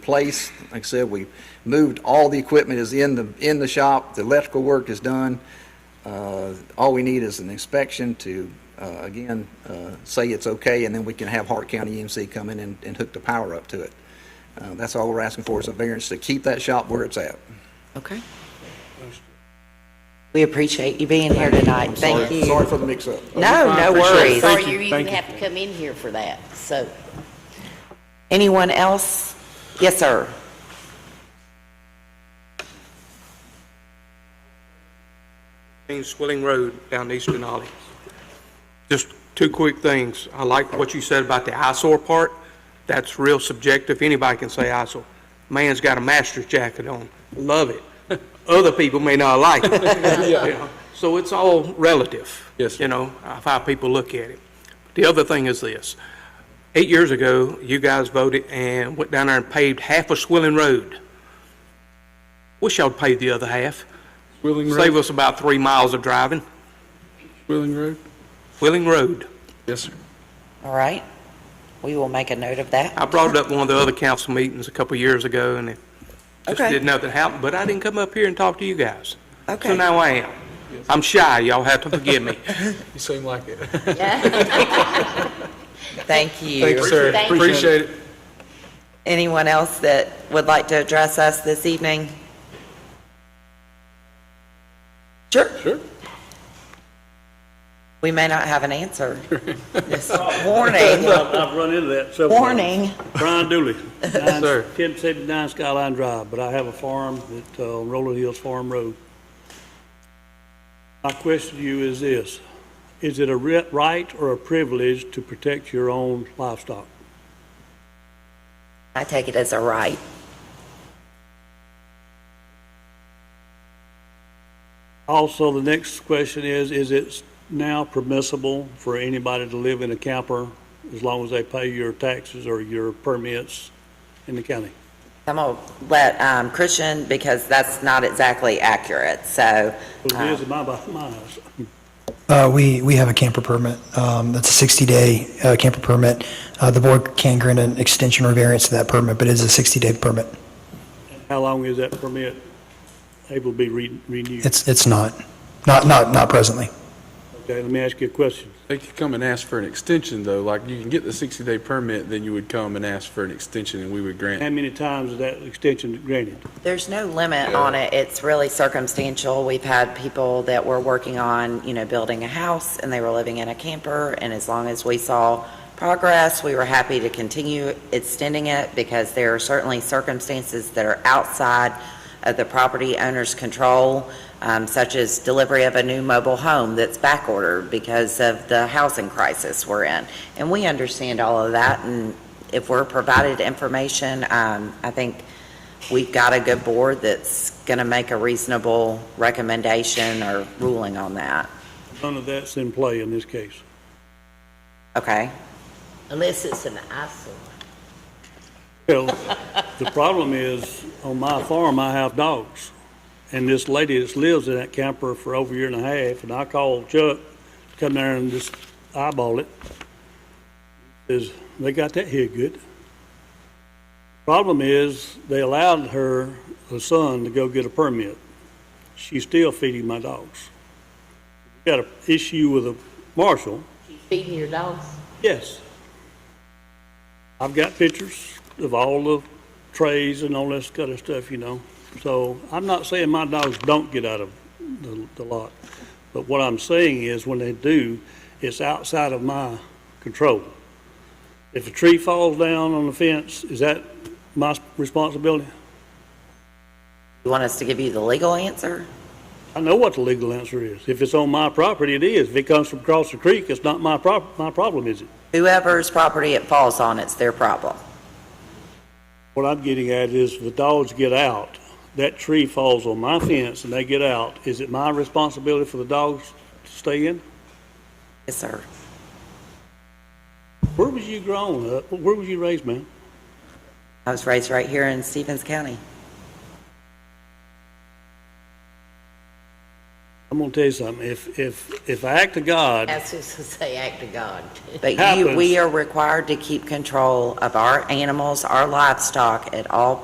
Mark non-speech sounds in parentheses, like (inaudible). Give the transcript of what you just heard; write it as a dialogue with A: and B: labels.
A: place. Like I said, we moved, all the equipment is in the, in the shop, the electrical work is done. Uh, All we need is an inspection to, uh, again, uh, say it's okay, and then we can have Hart County EMC come in and, and hook the power up to it. Uh, That's all we're asking for is a variance to keep that shop where it's at.
B: Okay. We appreciate you being here tonight. Thank you.
A: Sorry for the mix-up.
B: No, no worries.
C: Sorry
D: Thank you,
C: you even
D: thank you.
C: have to come in here for that, so.
B: Anyone else? Yes, sir.
D: James Swilling Road down in East Denali. Just two quick things. I like what you said about the eyesore part. That's real subjective. Anybody can say eyesore. Man's got a master's jacket on. Love
E: (laughs)
D: it. Other people may not like it. You know, So it's all relative.
E: Yes, sir.
D: You know, of how people look at it. The other thing is this. Eight years ago, you guys voted and went down there and paved half of Swilling Road. Wish y'all paved the other half.
E: Willing
D: Save
E: Road?
D: us about three miles of driving.
E: Willing Road?
D: Wheeling Road.
E: Yes, sir.
B: All right. We will make a note of
D: I
B: that.
D: brought it up one of the other council meetings a couple years ago, and it just
B: Okay.
D: did nothing happen, but I didn't come up here and talk to you guys.
B: Okay.
D: So now I am. I'm shy, y'all have to forgive me.
E: You seem like it.
C: (laughs)
B: Thank
E: Thanks,
B: you.
E: sir.
C: Thank you.
E: Appreciate it.
B: Anyone else that would like to address us this evening? Sure.
E: Sure.
B: We may not have an answer. This Warning.
F: I've I've run into that several times.
B: Warning.
F: Brian Dooley,
E: sir.
F: 1079 Skyline Drive, but I have a farm at uh, Rolling Hills Farm Road. My question to you is this, is it a ri- right or a privilege to protect your own livestock?
B: I take it as a right.
F: Also, the next question is, is it now permissible for anybody to live in a camper as long as they pay your taxes or your permits in the county?
B: I'm going to let um, Christian, because that's not exactly accurate, so.
F: Well, it is in my, my house.
G: Uh, We, we have a camper permit. Um, That's a 60-day camper permit. Uh, The board can grant an extension or variance to that permit, but it is a 60-day permit.
F: How long is that permit able to be re- renewed?
G: It's, it's not, not, not, not presently.
F: Okay, let me ask you a question.
E: They could come and ask for an extension, though. Like, you can get the 60-day permit, then you would come and ask for an extension, and we would grant.
F: How many times is that extension granted?
B: There's no limit on it. It's really circumstantial. We've had people that were working on, you know, building a house, and they were living in a camper, and as long as we saw progress, we were happy to continue extending it, because there are certainly circumstances that are outside of the property owner's control, um, such as delivery of a new mobile home that's backordered because of the housing crisis we're in. And we understand all of that, and if we're provided information, um, I think we've got a good board that's going to make a reasonable recommendation or ruling on that,
F: None of that's in play in this case.
B: okay?
C: Unless it's an eyesore.
F: Well, the problem is, on my farm, I have dogs. And this lady that's lives in that camper for over a year and a half, and I called Chuck to come there and just eyeball it, is they got that here good. Problem is, they allowed her, her son, to go get a permit. She's still feeding my dogs. Got an issue with a marshal,
C: Feeding your dogs.
F: Yes. I've got pictures of all the trays and all this kind of stuff, you know. So I'm not saying my dogs don't get out of the, the lot. But what I'm saying is when they do, it's outside of my control. If a tree falls down on the fence, is that my responsibility?
B: You want us to give you the legal answer?
F: I know what the legal answer is. If it's on my property, it is. If it comes from across the creek, it's not my prob, my problem, is it?
B: Whoever's property it falls on, it's their problem.
F: What I'm getting at is the dogs get out, that tree falls on my fence and they get out. Is it my responsibility for the dogs to stay in?
B: Yes, sir.
F: Where was you grown up? Where was you raised, man?
B: I was raised right here in Stevens County.
F: I'm gonna tell you something, if, if, if I act to God,
C: That's just to say, act of God.
B: But you,
F: Happens.
B: we are required to keep control of our animals, our livestock at all